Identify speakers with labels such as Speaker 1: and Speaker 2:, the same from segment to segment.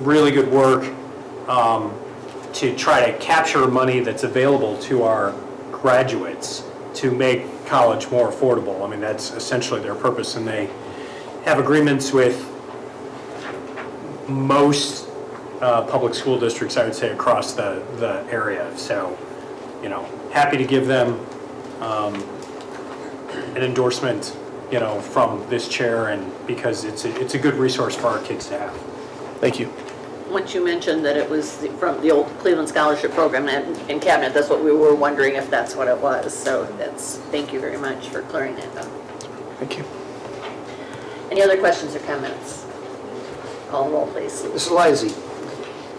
Speaker 1: really good work um, to try to capture money that's available to our graduates to make college more affordable. I mean, that's essentially their purpose, and they have agreements with most uh, public school districts, I would say, across the, the area. So, you know, happy to give them um, an endorsement, you know, from this chair and because it's, a- it's a good resource for our kids to have.
Speaker 2: Thank you.
Speaker 3: Once you mentioned that it was the- from the old Cleveland Scholarship Program and in cabinet, that's what we were wondering if that's what it was. So that's, thank you very much for clearing that up.
Speaker 2: Thank you.
Speaker 3: Any other questions or comments? Call the roll, please.
Speaker 4: Mrs. Lysy.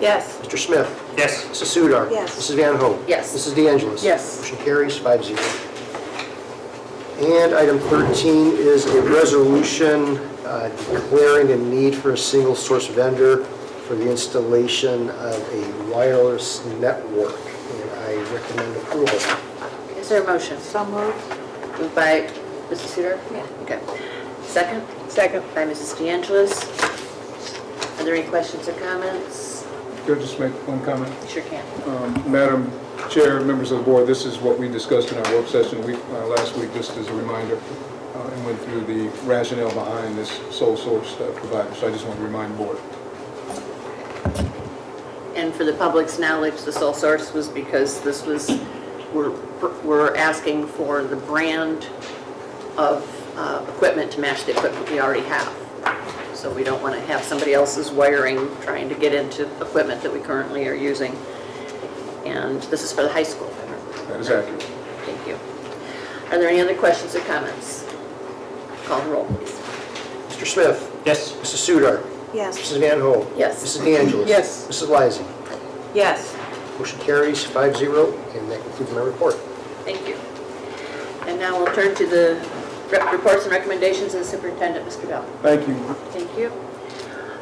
Speaker 3: Yes.
Speaker 4: Mr. Smith.
Speaker 1: Yes.
Speaker 4: Mrs. Sudar.
Speaker 5: Yes.
Speaker 4: Mrs. Van Hoen.
Speaker 3: Yes.
Speaker 4: Mrs. De Angelis.
Speaker 3: Yes.
Speaker 4: Motion carries five zero. And item 13 is a resolution uh, declaring a need for a single source vendor for the installation of a wireless network. And I recommend approval.
Speaker 3: Is there a motion?
Speaker 5: So moved.
Speaker 3: Moved by Mrs. Sudar?
Speaker 5: Yeah.
Speaker 3: Okay. Second? Second. By Mrs. De Angelis. Are there any questions or comments?
Speaker 6: Could I just make one comment?
Speaker 3: Sure can.
Speaker 6: Um, Madam Chair, members of the board, this is what we discussed in our work session week- uh, last week, just as a reminder, uh, and went through the rationale behind this sole source uh, provider. So I just want to remind the board.
Speaker 3: And for the public's knowledge, the sole source was because this was, we're, we're asking for the brand of uh, equipment to match the equipment we already have. So we don't want to have somebody else's wiring trying to get into equipment that we currently are using. And this is for the high school.
Speaker 6: That is accurate.
Speaker 3: Thank you. Are there any other questions or comments? Call the roll, please.
Speaker 4: Mr. Smith.
Speaker 1: Yes.
Speaker 4: Mrs. Sudar.
Speaker 5: Yes.
Speaker 4: Mrs. Van Hoen.
Speaker 3: Yes.
Speaker 4: Mrs. De Angelis.
Speaker 3: Yes.
Speaker 4: Mrs. Lysy.
Speaker 5: Yes.
Speaker 4: Motion carries five zero, and that concludes my report.
Speaker 3: Thank you. And now we'll turn to the rep- reports and recommendations of the superintendent, Mr. Bell.
Speaker 6: Thank you.
Speaker 3: Thank you.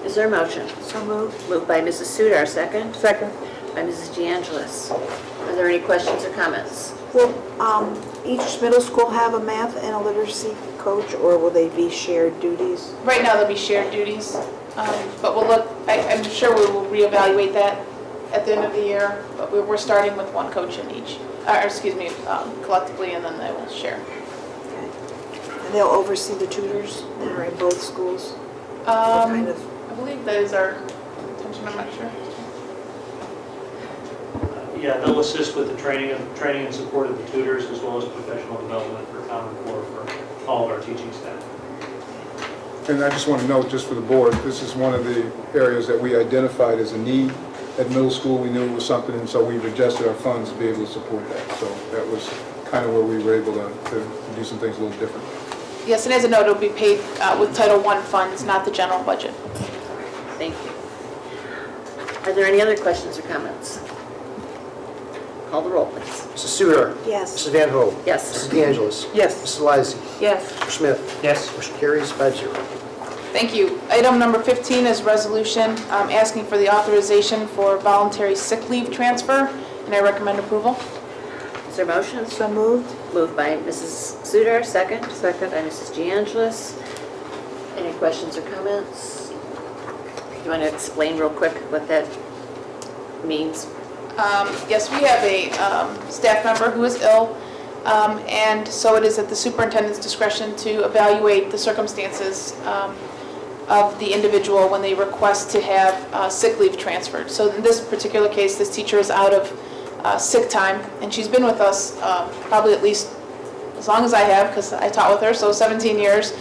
Speaker 3: Is there a motion?
Speaker 5: So moved.
Speaker 3: Moved by Mrs. Sudar, second
Speaker 5: Second.
Speaker 3: by Mrs. De Angelis. Are there any questions or comments?
Speaker 5: Will um, each middle school have a math and a literacy coach, or will they be shared duties?
Speaker 7: Right now, they'll be shared duties, um, but we'll look, I- I'm sure we will reevaluate that at the end of the year, but we- we're starting with one coach in each, uh, or excuse me, um, collectively, and then they will share.
Speaker 5: Okay. And they'll oversee the tutors that are in both schools? What kind
Speaker 7: Um,
Speaker 5: of,
Speaker 7: I believe that is our intention, I'm not sure.
Speaker 8: Yeah, they'll assist with the training, of training and support of the tutors, as well as professional development for Common Core for all of our teaching staff.
Speaker 6: And I just want to note, just for the board, this is one of the areas that we identified as a need. At middle school, we knew it was something, and so we've adjusted our funds to be able to support that. So that was kind of where we were able to to do some things a little different.
Speaker 7: Yes, and as a note, it'll be paid uh, with Title I funds, not the general budget.
Speaker 3: Thank you. Are there any other questions or comments? Call the roll, please.
Speaker 4: Mrs. Sudar.
Speaker 5: yes.
Speaker 4: Mrs. Van Hoen.
Speaker 3: Yes.
Speaker 4: Mrs. De Angelis.
Speaker 3: Yes.
Speaker 4: Mrs. Lysy.
Speaker 7: Yes.
Speaker 4: Mr. Smith.
Speaker 1: Yes.
Speaker 4: Motion carries five zero.
Speaker 7: Thank you. Item number 15 is resolution um, asking for the authorization for voluntary sick leave transfer, and I recommend approval.
Speaker 3: Is there a motion?
Speaker 5: So moved?
Speaker 3: Moved by Mrs. Sudar, second. Second. By Mrs. De Angelis. Any questions or comments? You want to explain real quick what that means?
Speaker 7: Um, Yes, we have a um, staff member who is ill, um, and so it is at the superintendent's discretion to evaluate the circumstances um, of the individual when they request to have uh, sick leave transferred. So in this particular case, this teacher is out of uh, sick time, and she's been with us uh, probably at least as long as I have, because I taught with her, so 17 years.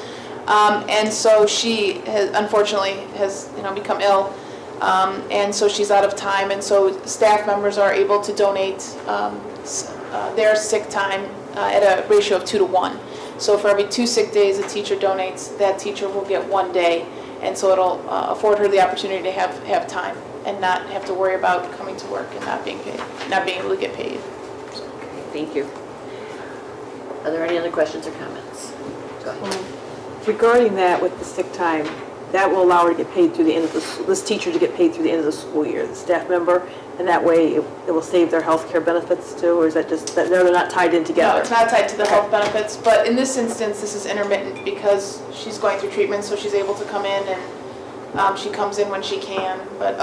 Speaker 7: Um, and so she has, unfortunately has you know become ill, um, and so she's out of time. And so staff members are able to donate um, s- uh, their sick time uh, at a ratio of two to one. So for every two sick days a teacher donates, that teacher will get one day, and so it'll uh, afford her the opportunity to have have time and not have to worry about coming to work and not being paid, not being able to get paid.
Speaker 3: Thank you. Are there any other questions or comments? Go ahead.
Speaker 9: Regarding that with the sick time, that will allow her to get paid through the end of the, s- this teacher to get paid through the end of the school year, the staff member, and that way it it will save their health care benefits too, or is that just, that no, they're not tied in together?
Speaker 7: No, it's not tied to the health benefits, but in this instance, this is intermittent because she's going through treatment, so she's able to come in and um, she comes in when she can, but